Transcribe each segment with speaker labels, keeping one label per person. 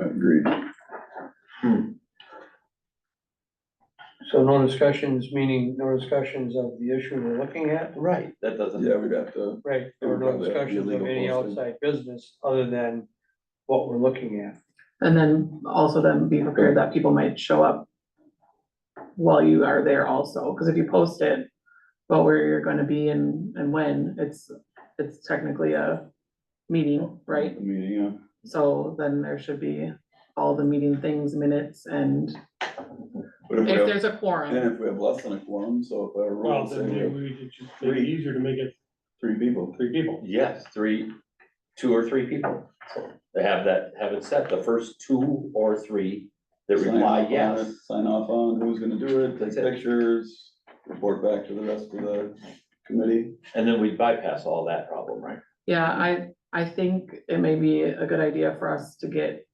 Speaker 1: Agreed.
Speaker 2: So no discussions, meaning no discussions of the issue we're looking at,
Speaker 3: Right, that doesn't,
Speaker 1: Yeah, we'd have to,
Speaker 2: right? There were no
Speaker 1: Probably that'd be
Speaker 2: discussions of
Speaker 1: illegal
Speaker 2: any
Speaker 1: posting.
Speaker 2: outside business other than what we're looking at.
Speaker 4: And then also then be prepared that people might show up while you are there also, because if you post it about where you're gonna be and, and when, it's, it's technically a meeting, right?
Speaker 1: the meeting,
Speaker 4: So then there should be all the meeting things, minutes, and
Speaker 1: yeah. But if we
Speaker 4: if
Speaker 1: have,
Speaker 4: there's a
Speaker 1: and
Speaker 4: quorum,
Speaker 1: if we have less than a quorum, so if our
Speaker 5: Well,
Speaker 1: rules say
Speaker 5: then maybe
Speaker 1: we're
Speaker 5: we could just make it easier to make it
Speaker 1: three people,
Speaker 5: three people.
Speaker 3: yes, three, two or three people. They have that, have it set, the first two or three that
Speaker 1: Sign
Speaker 3: reply
Speaker 1: off on
Speaker 3: yes.
Speaker 1: it, Sign off on who's gonna do it, take
Speaker 3: That's it.
Speaker 1: pictures, report back to the rest of the committee.
Speaker 3: And then we bypass all that problem, right?
Speaker 4: yeah, I, I think it may be a good idea for us to get,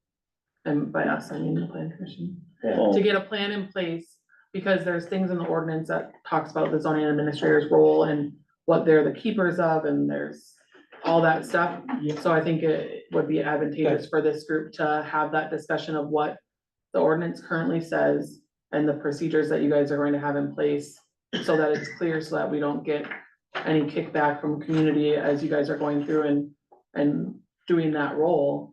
Speaker 4: and by us, I mean the plan commission.
Speaker 3: Yeah,
Speaker 1: Oh,
Speaker 4: to get a plan in place, because there's things in the ordinance that talks about the zoning administrator's role and what they're the keepers of, and there's all that stuff.
Speaker 5: Yeah.
Speaker 4: So I think it would be advantageous for this group to have that discussion of what the ordinance currently says and the procedures that you guys are going to have in place, so that it's clear, so that we don't get any kickback from community as you guys are going through and, and doing that role,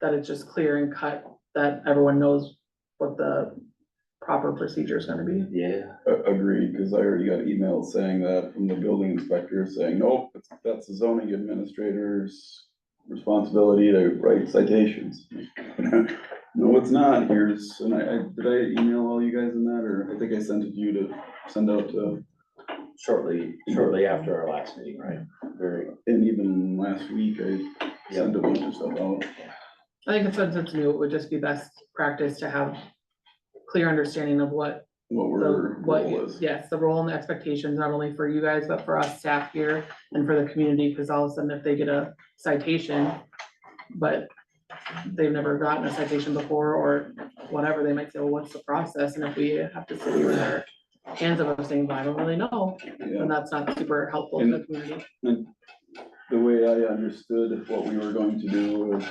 Speaker 4: that it's just clear and cut, that everyone knows what the proper procedure is gonna be.
Speaker 3: yeah,
Speaker 1: a- Agreed, cause I already got emails saying that from the building inspector saying, nope, it's- that's the zoning administrator's responsibility to write citations. No, it's not, here's, and I, I, did I email all you guys in that, or I think I sent it to you to send out to,
Speaker 3: shortly, shortly after our last meeting, right? Very,
Speaker 1: and even last week, I
Speaker 3: yeah,
Speaker 1: sent a bunch of stuff out.
Speaker 4: I think it's since it's new, it would just be best practice to have clear understanding of what
Speaker 1: What
Speaker 4: the,
Speaker 1: we're,
Speaker 4: what,
Speaker 1: role
Speaker 4: you-
Speaker 1: is.
Speaker 4: yes, the role and the expectations, not only for you guys, but for us staff here and for the community, cause all of a sudden if they get a citation, but they've never gotten a citation before or whatever, they might say, well, what's the process? And if we have to sit here with our hands up and saying, well, I don't really know,
Speaker 1: Yeah,
Speaker 4: then that's not super helpful to the community.
Speaker 1: the way I understood what we were going to do was,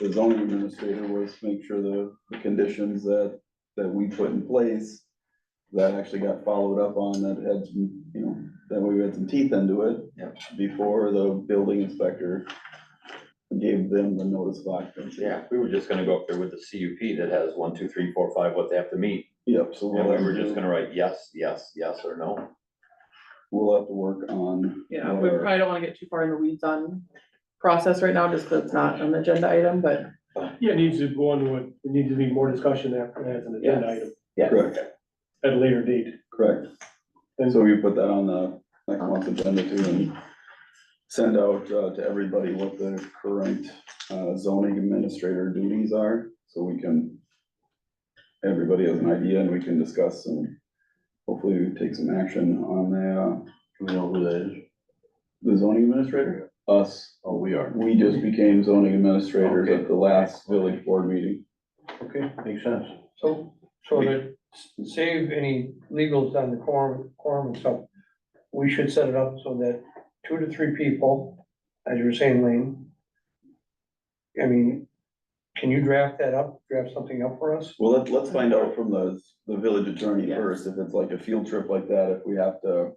Speaker 1: the zoning administrator was make sure the, the conditions that, that we put in place that actually got followed up on, that had some, you know, that we had some teeth into it.
Speaker 3: Yep.
Speaker 1: Before the building inspector gave them the notice of occupancy.
Speaker 3: yeah, we were just gonna go up there with the CUP that has one, two, three, four, five, what they have to meet.
Speaker 1: Yep, so
Speaker 3: And
Speaker 1: we'll
Speaker 3: we
Speaker 1: have
Speaker 3: were just
Speaker 1: to,
Speaker 3: gonna write yes, yes, yes, or no.
Speaker 1: we'll have to work on.
Speaker 4: Yeah,
Speaker 1: what
Speaker 4: we
Speaker 1: our-
Speaker 4: probably don't wanna get too far in the weeds on process right now, just 'cause it's not an agenda item, but
Speaker 5: Yeah, it needs to go on, what, there needs to be more discussion after that as an agenda
Speaker 3: Yes.
Speaker 5: item
Speaker 3: Yeah.
Speaker 1: Correct,
Speaker 5: at a later date.
Speaker 1: correct. And so we put that on the next month's agenda too and send out uh, to everybody what the current uh, zoning administrator duties are, so we can, everybody has an idea and we can discuss and hopefully we take some action on the, uh,
Speaker 3: We know who that is.
Speaker 1: the zoning administrator, us.
Speaker 3: Oh, we are.
Speaker 1: We just became zoning administrators at the last village board meeting.
Speaker 3: Okay, makes sense.
Speaker 2: So, so to s- save any legals on the quorum, quorum and stuff, we should set it up so that two to three people, as you were saying, Lane. I mean, can you draft that up, draft something up for us?
Speaker 1: Well, let's, let's find out from the, the village attorney
Speaker 4: Yes.
Speaker 1: first, if it's like a field trip like that, if we have to,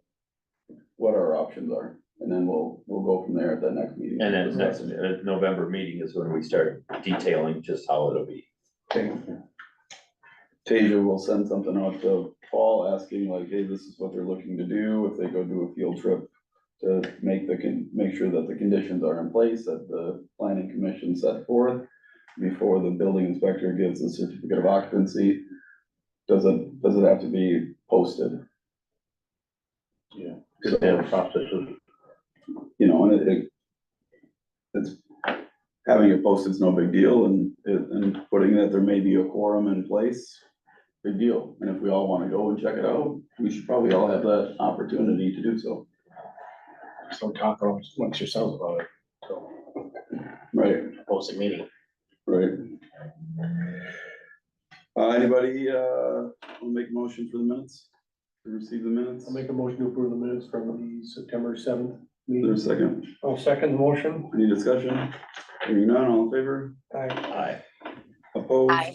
Speaker 1: what our options are, and then we'll, we'll go from there at that next meeting.
Speaker 3: And then next,
Speaker 1: Discuss it.
Speaker 3: uh, November meeting is when we start detailing just how it'll be.
Speaker 1: Okay. Tasia will send something out to Paul asking like, hey, this is what they're looking to do, if they go do a field trip to make the, con make sure that the conditions are in place that the planning commission set forth before the building inspector gives the certificate of occupancy. Does it, does it have to be posted?
Speaker 6: Cause they have processes.
Speaker 1: you know, and it, it. It's, having it posted is no big deal, and, it- and putting that there may be a quorum in place, big deal. And if we all wanna go and check it out, we should probably all have that opportunity to do so.
Speaker 6: So talk amongst yourselves about it,
Speaker 1: Right,
Speaker 6: post a meeting.
Speaker 1: right. Uh, anybody, uh, will make a motion for the minutes, to receive the minutes?
Speaker 5: I'll make a motion to approve the minutes from the September seventh meeting.
Speaker 1: There's a second,
Speaker 2: I'll second the motion.
Speaker 1: any discussion? Hearing none, all in favor?
Speaker 2: I,
Speaker 3: Aye.
Speaker 7: Opposed?
Speaker 1: Aye.